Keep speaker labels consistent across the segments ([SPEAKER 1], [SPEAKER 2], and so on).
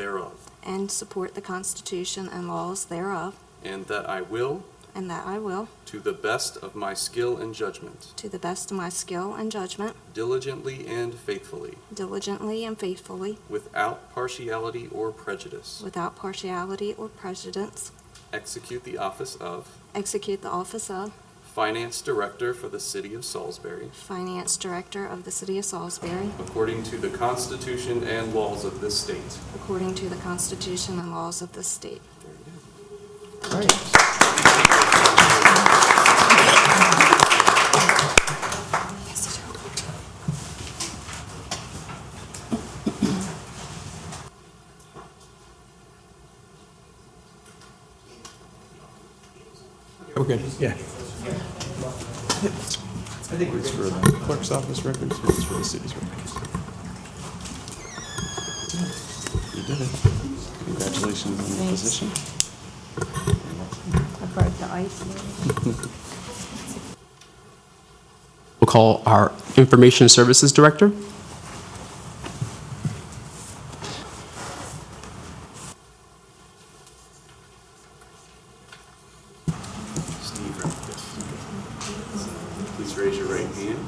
[SPEAKER 1] thereof,
[SPEAKER 2] and support the Constitution and laws thereof,
[SPEAKER 1] and that I will,
[SPEAKER 2] and that I will,
[SPEAKER 1] to the best of my skill and judgment,
[SPEAKER 2] to the best of my skill and judgment,
[SPEAKER 1] diligently and faithfully,
[SPEAKER 2] diligently and faithfully,
[SPEAKER 1] without partiality or prejudice,
[SPEAKER 2] without partiality or prejudice,
[SPEAKER 1] execute the office of
[SPEAKER 2] execute the office of
[SPEAKER 1] Finance Director for the City of Salisbury,
[SPEAKER 2] Finance Director of the City of Salisbury,
[SPEAKER 1] according to the Constitution and laws of this state.
[SPEAKER 2] according to the Constitution and laws of this state. Yes, I do.
[SPEAKER 3] Okay, yeah. I think it's for the clerk's office records, or it's for the city's records. You did it. Congratulations on the
[SPEAKER 4] Thanks.
[SPEAKER 3] position.
[SPEAKER 4] I broke the ice.
[SPEAKER 5] We'll call our Information Services Director.
[SPEAKER 1] Steve, please raise your right hand.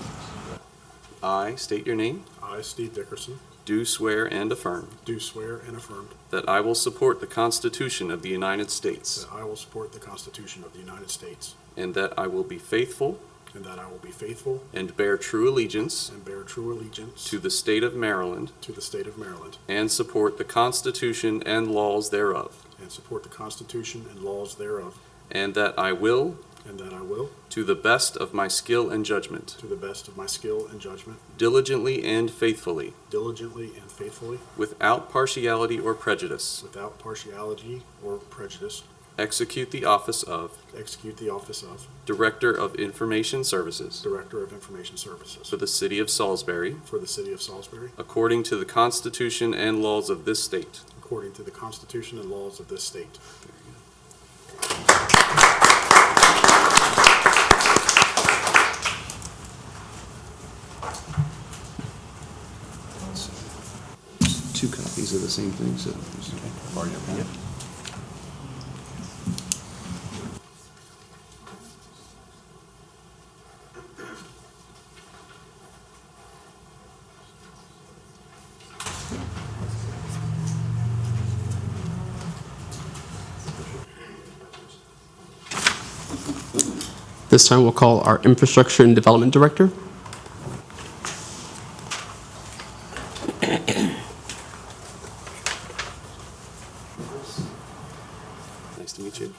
[SPEAKER 1] I state your name,
[SPEAKER 6] I, Steve Dickerson,
[SPEAKER 1] do swear and affirm
[SPEAKER 6] do swear and affirm
[SPEAKER 1] that I will support the Constitution of the United States
[SPEAKER 6] that I will support the Constitution of the United States
[SPEAKER 1] and that I will be faithful
[SPEAKER 6] and that I will be faithful
[SPEAKER 1] and bear true allegiance
[SPEAKER 6] and bear true allegiance
[SPEAKER 1] to the state of Maryland
[SPEAKER 6] to the state of Maryland
[SPEAKER 1] and support the Constitution and laws thereof,
[SPEAKER 6] and support the Constitution and laws thereof,
[SPEAKER 1] and that I will,
[SPEAKER 6] and that I will,
[SPEAKER 1] to the best of my skill and judgment,
[SPEAKER 6] to the best of my skill and judgment,
[SPEAKER 1] diligently and faithfully,
[SPEAKER 6] diligently and faithfully,
[SPEAKER 1] without partiality or prejudice,
[SPEAKER 6] without partiality or prejudice,
[SPEAKER 1] execute the office of
[SPEAKER 6] execute the office of
[SPEAKER 1] Director of Information Services
[SPEAKER 6] Director of Information Services
[SPEAKER 1] for the City of Salisbury,
[SPEAKER 6] for the city of Salisbury
[SPEAKER 1] according to the Constitution and laws of this state.
[SPEAKER 6] according to the Constitution and laws of this state.
[SPEAKER 3] Two copies of the same thing, so. Yep.
[SPEAKER 5] This time, we'll call our Infrastructure and Development Director.
[SPEAKER 1] Nice to meet you.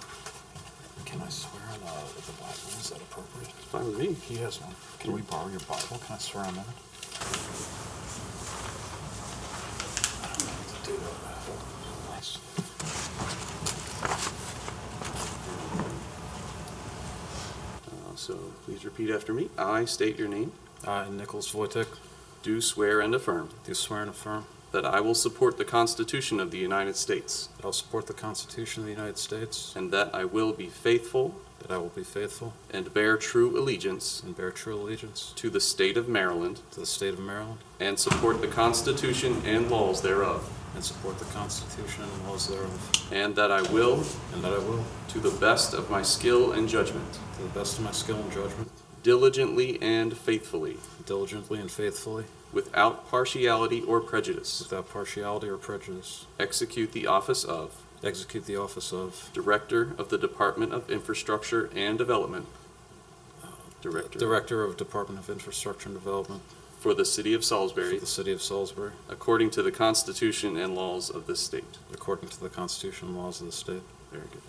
[SPEAKER 7] Can I swear on uh, the Bible? Is that appropriate?
[SPEAKER 1] It's fine with me.
[SPEAKER 7] He has one. Can we borrow your Bible? Can I swear on that? I don't know what to do with that. Nice.
[SPEAKER 1] Uh, So please repeat after me. I state your name,
[SPEAKER 8] I, Nicholas Voitek,
[SPEAKER 1] do swear and affirm
[SPEAKER 8] do swear and affirm
[SPEAKER 1] that I will support the Constitution of the United States
[SPEAKER 8] that I will support the Constitution of the United States,
[SPEAKER 1] and that I will be faithful
[SPEAKER 8] that I will be faithful
[SPEAKER 1] and bear true allegiance
[SPEAKER 8] and bear true allegiance
[SPEAKER 1] to the state of Maryland
[SPEAKER 8] to the state of Maryland,
[SPEAKER 1] and support the Constitution and laws thereof,
[SPEAKER 8] and support the Constitution and laws thereof,
[SPEAKER 1] and that I will,
[SPEAKER 8] and that I will,
[SPEAKER 1] to the best of my skill and judgment,
[SPEAKER 8] to the best of my skill and judgment,
[SPEAKER 1] diligently and faithfully,
[SPEAKER 8] diligently and faithfully,
[SPEAKER 1] without partiality or prejudice,
[SPEAKER 8] without partiality or prejudice,
[SPEAKER 1] execute the office of
[SPEAKER 8] execute the office of
[SPEAKER 1] Director of the Department of Infrastructure and Development. Director.
[SPEAKER 8] Director of Department of Infrastructure and Development
[SPEAKER 1] For the City of
[SPEAKER 8] for
[SPEAKER 1] Salisbury,
[SPEAKER 8] the City of Salisbury,
[SPEAKER 1] according to the Constitution and laws of this state.
[SPEAKER 8] according to the Constitution and laws of the state.
[SPEAKER 1] Very good.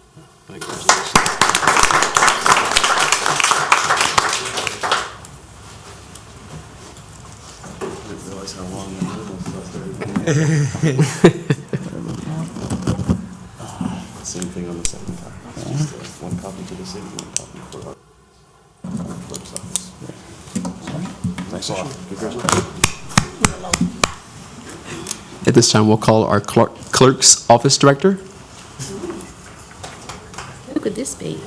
[SPEAKER 8] Thank you.
[SPEAKER 3] Didn't realize how long the little stuff there. Same thing on the second copy. It's just, uh, One copy to the city, one copy for our our clerk's office. Nice issue. Congratulations.
[SPEAKER 5] At this time, we'll call our clerk- Clerk's Office Director.
[SPEAKER 4] Who could this be?